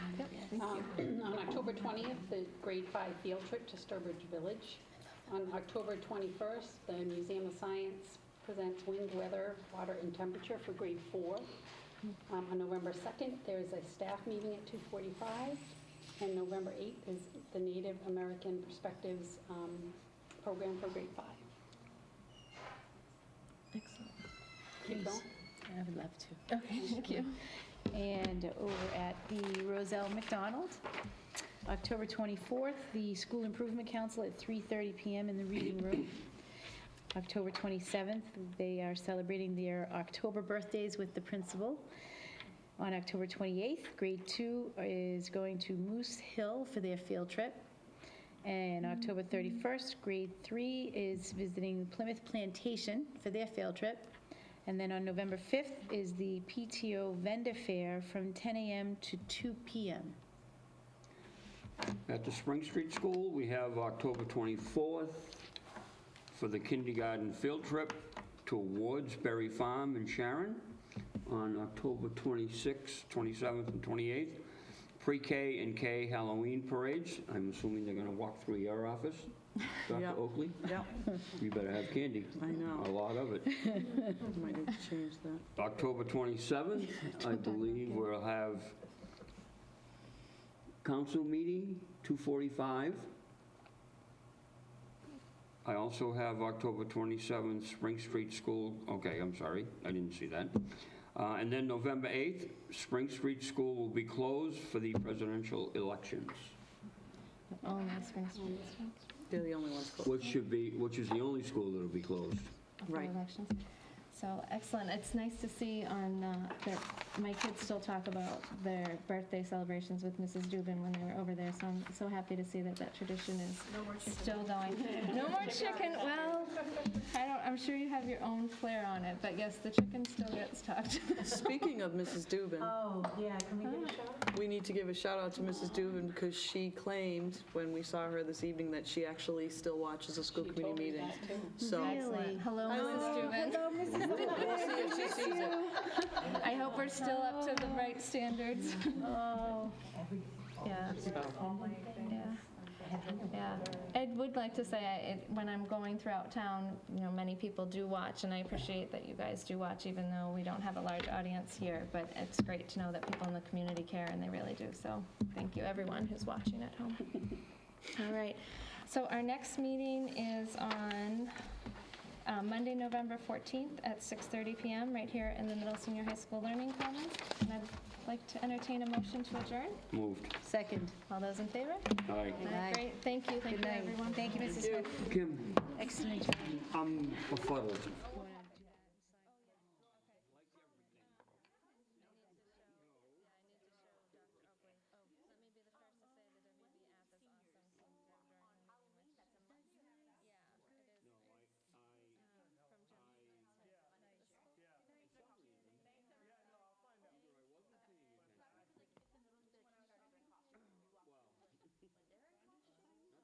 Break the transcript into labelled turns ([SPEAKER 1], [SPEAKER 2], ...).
[SPEAKER 1] Um, On October 20th, the grade five field trip to Sturbridge Village. On October 21st, the Museum of Science presents wind, weather, water, and temperature for grade four. Um, On November 2nd, there is a staff meeting at 2:45. And November 8th is the Native American Perspectives um, Program for grade five.
[SPEAKER 2] Excellent.
[SPEAKER 1] Keep going.
[SPEAKER 2] I would love to. Okay, thank you. And over at the Roselle McDonald, October 24th, the School Improvement Council at 3:30 PM in the Reading Room. October 27th, they are celebrating their October birthdays with the principal. On October 28th, grade two is going to Moose Hill for their field trip. And October 31st, grade three is visiting Plymouth Plantation for their field trip. And then on November 5th is the PTO vendor fair from 10 a.m. to 2 p.m.
[SPEAKER 3] At the Spring Street School, we have October 24th for the kindergarten field trip to Wardsberry Farm in Sharon. On October 26th, 27th, and 28th, pre-K and K Halloween parades. I'm assuming they're going to walk through your office, Dr.
[SPEAKER 4] Yeah.
[SPEAKER 3] Oakley.
[SPEAKER 4] Yeah,
[SPEAKER 3] You better have candy.
[SPEAKER 4] I know.
[SPEAKER 3] A lot of it.
[SPEAKER 4] might have to change that.
[SPEAKER 3] October 27th, I believe we'll have council meeting, 2:45. I also have October 27th, Spring Street School, okay, I'm sorry, I didn't see that. Uh, And then November 8th, Spring Street School will be closed for the presidential elections,
[SPEAKER 2] Oh, that's right.
[SPEAKER 4] They're the only ones closed.
[SPEAKER 3] which should be, which is the only school that'll be closed.
[SPEAKER 5] after
[SPEAKER 4] Right.
[SPEAKER 5] elections. So excellent. It's nice to see on uh, that my kids still talk about their birthday celebrations with Mrs. Dubin when they were over there. So I'm so happy to see that that tradition is still going. No more chicken. Well, I don't. I'm sure you have your own flair on it, but yes, the chicken still gets talked.
[SPEAKER 4] Speaking of Mrs. Dubin,
[SPEAKER 6] Oh, yeah, can we give a shout?
[SPEAKER 4] we need to give a shout out to Mrs. Dubin because she claimed when we saw her this evening that she actually still watches the school
[SPEAKER 1] She
[SPEAKER 4] committee
[SPEAKER 1] told me
[SPEAKER 4] meetings.
[SPEAKER 1] that, too.
[SPEAKER 4] So
[SPEAKER 5] Excellent. Hello,
[SPEAKER 4] I
[SPEAKER 5] Mrs.
[SPEAKER 4] know.
[SPEAKER 5] Dubin.
[SPEAKER 4] we'll see if she sees it.
[SPEAKER 5] I hope we're still up to the right standards.
[SPEAKER 2] Oh,
[SPEAKER 5] Yeah. Yeah. Yeah. I would like to say, I- it- when I'm going throughout town, you know, many people do watch, and I appreciate that you guys do watch, even though we don't have a large audience here, but it's great to know that people in the community care, and they really do, so thank you, everyone who's watching at home. All right, so our next meeting is on uh, Monday, November 14th at 6:30 PM, right here in the Middle Senior High School Learning Commons, and I'd like to entertain a motion to adjourn.
[SPEAKER 3] Moved.
[SPEAKER 2] second.
[SPEAKER 5] All those in favor?
[SPEAKER 3] Aye.
[SPEAKER 2] Aye.
[SPEAKER 5] Great, thank you, thank
[SPEAKER 2] Good
[SPEAKER 5] you,
[SPEAKER 2] night.
[SPEAKER 5] everyone.
[SPEAKER 2] Thank you, Mrs. Smith.
[SPEAKER 3] Kim,
[SPEAKER 2] Excellent job.
[SPEAKER 3] I'm befuddled.